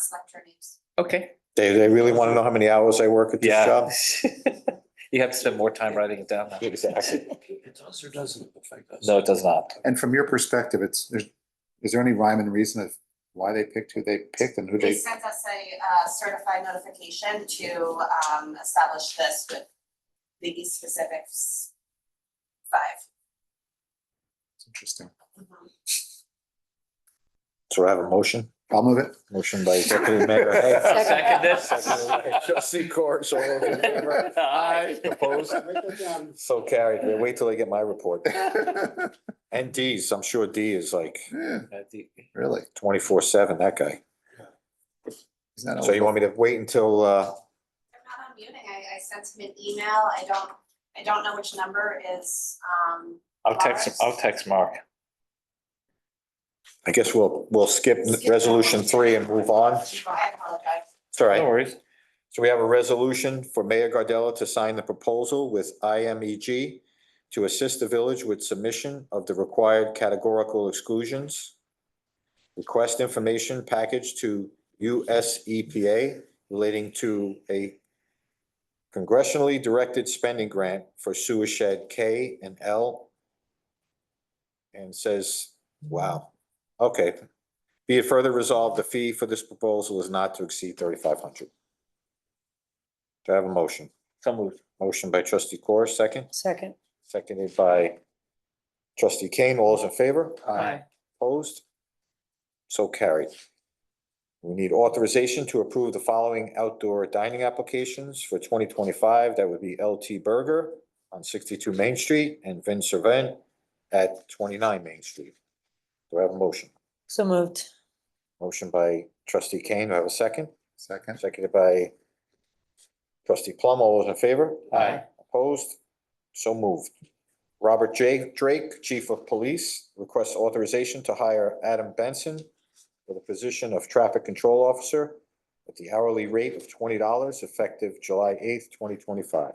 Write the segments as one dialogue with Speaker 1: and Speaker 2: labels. Speaker 1: select your names.
Speaker 2: Okay.
Speaker 3: They, they really want to know how many hours I work at this
Speaker 2: Yeah.
Speaker 3: job?
Speaker 2: You have to spend more time writing it down now.
Speaker 3: Exactly.
Speaker 4: It does or doesn't affect us?
Speaker 2: No, it does not.
Speaker 5: And from your perspective, it's, there's, is there any rhyme and reason of why they picked who they picked and who
Speaker 1: They
Speaker 5: they?
Speaker 1: sent us a uh, certified notification to um, establish this with the specifics five.
Speaker 5: It's Interesting.
Speaker 3: So I have a motion,
Speaker 5: I'll move it.
Speaker 3: motion by Deputy Mayor Hay.
Speaker 2: Second
Speaker 3: Trustee Corus, all those in favor? Opposed? So carried. We'll Wait till they get my report. And D's, I'm sure D is like
Speaker 5: Yeah,
Speaker 2: Aye.
Speaker 5: Really?
Speaker 3: twenty-four seven, that guy.
Speaker 5: Is that
Speaker 3: So you want me to wait until, uh,
Speaker 1: I'm not unmuting. I I sent him an email. I don't, I don't know which number is um
Speaker 2: I'll text, him- I'll text Mark.
Speaker 3: I guess we'll, we'll skip
Speaker 1: Skip that
Speaker 3: resolution
Speaker 1: one.
Speaker 3: three and move on?
Speaker 1: I apologize.
Speaker 3: It's
Speaker 2: No
Speaker 3: all right.
Speaker 2: worries.
Speaker 3: So we have a resolution for Mayor Gardella to sign the proposal with IMEG to assist the village with submission of the required categorical exclusions. Request information package to US EPA relating to a congressionally directed spending grant for sewer shed K and L. And says, wow, okay. Be it further resolved, the fee for this proposal is not to exceed thirty-five hundred. Do I have a motion?
Speaker 2: So moved.
Speaker 3: Motion by trustee Corr, second,
Speaker 6: Second.
Speaker 3: seconded by trustee Kane. All those in favor?
Speaker 2: Aye.
Speaker 3: Opposed? So carried. We need authorization to approve the following outdoor dining applications for twenty twenty-five. That would be LT Burger on sixty-two Main Street and Vin Servant at twenty-nine Main Street. Do I have a motion?
Speaker 6: So moved.
Speaker 3: Motion by trustee Kane. Do I have a second?
Speaker 5: Second.
Speaker 3: Seconded by trustee Plum. All those in favor?
Speaker 2: Aye.
Speaker 3: Opposed? So moved. Robert J. Drake, Chief of Police, requests authorization to hire Adam Benson for the position of Traffic Control Officer at the hourly rate of twenty dollars effective July eighth, twenty twenty-five.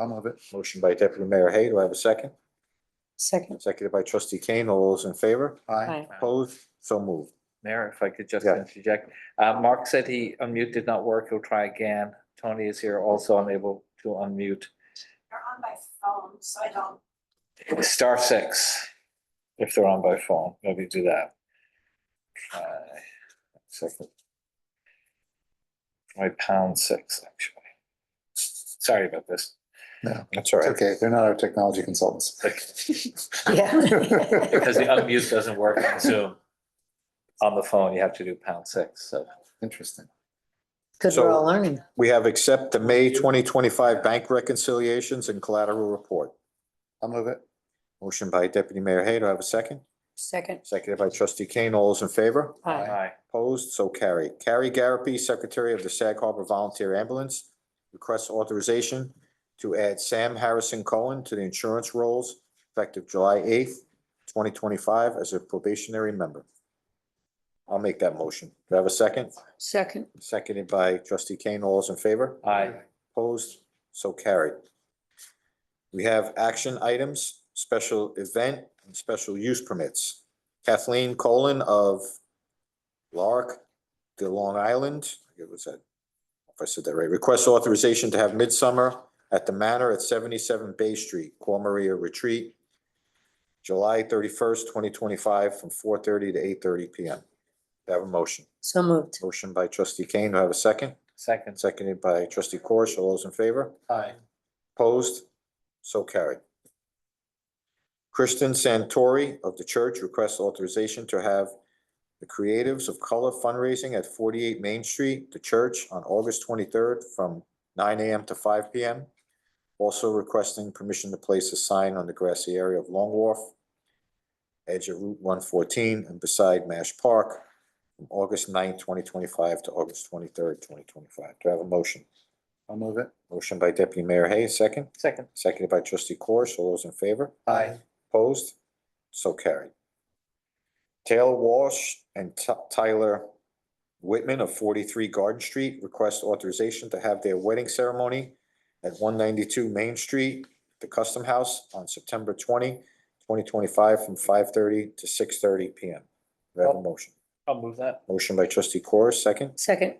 Speaker 5: I'll move it.
Speaker 3: Motion by Deputy Mayor Hay. Do I have a second?
Speaker 6: Second.
Speaker 3: Seconded by trustee Kane. All those in favor?
Speaker 5: Aye.
Speaker 6: Aye.
Speaker 3: Opposed? So moved.
Speaker 2: Mayor, if I could just
Speaker 3: Yeah.
Speaker 2: interject, uh, Mark said he unmute did not work. He'll try again. Tony is here also unable to unmute.
Speaker 1: They're on by phone, so I don't
Speaker 2: Star six, if they're on by phone, maybe do that. Uh, Try Second. My pound six, actually. Sorry about this.
Speaker 5: No,
Speaker 3: That's all
Speaker 5: it's
Speaker 3: right.
Speaker 5: okay. They're not our technology consultants.
Speaker 6: Yeah.
Speaker 2: Because the unmute doesn't work on Zoom. On the phone, you have to do pound six, so.
Speaker 5: Interesting.
Speaker 6: Good, we're all learning.
Speaker 3: We have accept the May twenty twenty-five bank reconciliations and collateral report.
Speaker 5: I'll move it.
Speaker 3: Motion by Deputy Mayor Hay, do I have a second?
Speaker 6: Second.
Speaker 3: Seconded by Trustee Kane, all those in favor?
Speaker 6: Aye.
Speaker 2: Aye.
Speaker 3: Opposed, so carried. Carrie Garapi, Secretary of the Sag Harbor Volunteer Ambulance, requests authorization to add Sam Harrison Cohen to the insurance rolls effective July eighth, twenty twenty-five as a probationary member. I'll make that motion. Do I have a second?
Speaker 6: Second.
Speaker 3: Seconded by Trustee Kane, all those in favor?
Speaker 2: Aye.
Speaker 3: Opposed, so carried. We have action items, special event and special use permits. Kathleen Colon of Lark, the Long Island, I forget what's that? If I said that right, requests authorization to have midsummer at the Manor at seventy-seven Bay Street, Cor Maria Retreat, July thirty-first, twenty twenty-five, from four thirty to eight thirty P M. Do I Have a motion.
Speaker 6: So moved.
Speaker 3: Motion by trustee Kane, do I have a second?
Speaker 2: Second.
Speaker 3: Seconded by trustee Corish. All those in favor?
Speaker 4: Aye.
Speaker 3: Opposed? So carried. Kristen Santori of the church requests authorization to have the Creatives of Color fundraising at forty-eight Main Street, the church, on August twenty-third from nine AM to five PM. Also requesting permission to place a sign on the grassy area of Long Wharf, edge of Route one fourteen and beside Mash Park from August 9th, twenty twenty-five to August twenty-third, twenty twenty-five. Do I have a motion?
Speaker 5: I'll move it.
Speaker 3: Motion by deputy mayor Hay, second.
Speaker 2: Second.
Speaker 3: Seconded by trustee Corish. All those in favor?
Speaker 5: Aye.
Speaker 3: Opposed? So carried. Taylor Walsh and Ty- Tyler Whitman of forty-three Garden Street request authorization to have their wedding ceremony at one ninety-two Main Street, the Custom House, on September 20, 2025, from five thirty to six thirty P M. Do I have a motion?
Speaker 2: I'll move that.
Speaker 3: Motion by trustee Corr, second.
Speaker 6: Second.